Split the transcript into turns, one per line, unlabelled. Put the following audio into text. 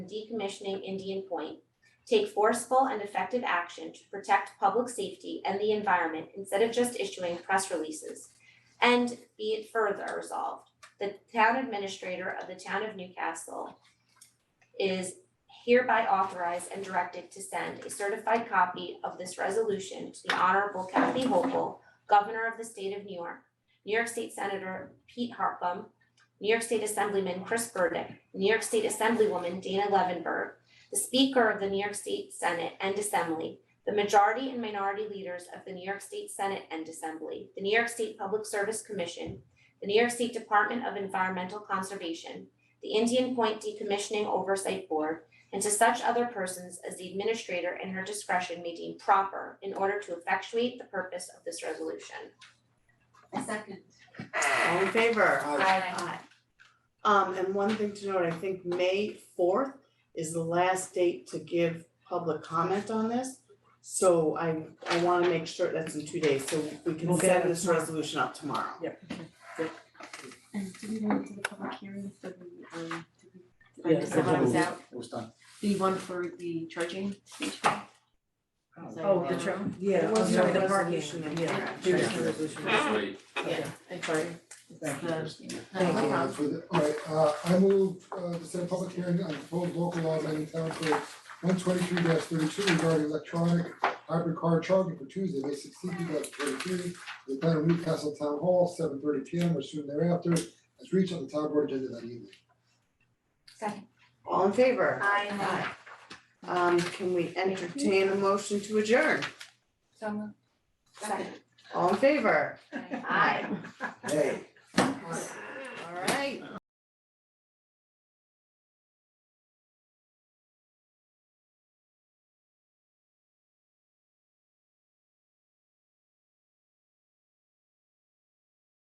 decommissioning Indian Point, take forceful and effective action to protect public safety and the environment instead of just issuing press releases. And be it further resolved, the town administrator of the town of Newcastle is hereby authorized and directed to send a certified copy of this resolution to the Honorable Kathy Hochul, Governor of the State of New York, New York State Senator Pete Harpum, New York State Assemblyman Chris Burdick, New York State Assemblywoman Dana Levenberg, the Speaker of the New York State Senate and Assembly, the majority and minority leaders of the New York State Senate and Assembly, the New York State Public Service Commission, the New York State Department of Environmental Conservation, the Indian Point Decommissioning Oversight Board, and to such other persons as the administrator in her discretion may deem proper in order to effectuate the purpose of this resolution.
A second.
All in favor?
Aye.
Um, and one thing to note, I think May fourth is the last date to give public comment on this. So I, I wanna make sure that's in two days, so we can
We'll get it
send this
tomorrow.
resolution up tomorrow.
And did we go into the public hearing for the, um, did we- did I
Yes.
miss that when I was out?
It was done.
The one for the charging station?
Oh, the tr- yeah,
It was
oh,
no
the parking,
resolution in
yeah.
there,
There
actually.
is no resolution.
Thank
Yeah, I'm sorry. It's
you,
the,
Kristen.
no, no
Uh,
problem.
for the- Alright, uh, I move uh to set a public hearing on proposed local law amending town code one twenty-three thirty-two regarding electronic hybrid car charging for Tuesday, May sixteenth, two thousand twenty-three. The town of Newcastle Town Hall, seven thirty P M or soon thereafter, as reached on the town board agenda that evening.
Second.
All in favor?
Aye.
Um, can we entertain a motion to adjourn?
Second.
All in favor?
Aye.
All right.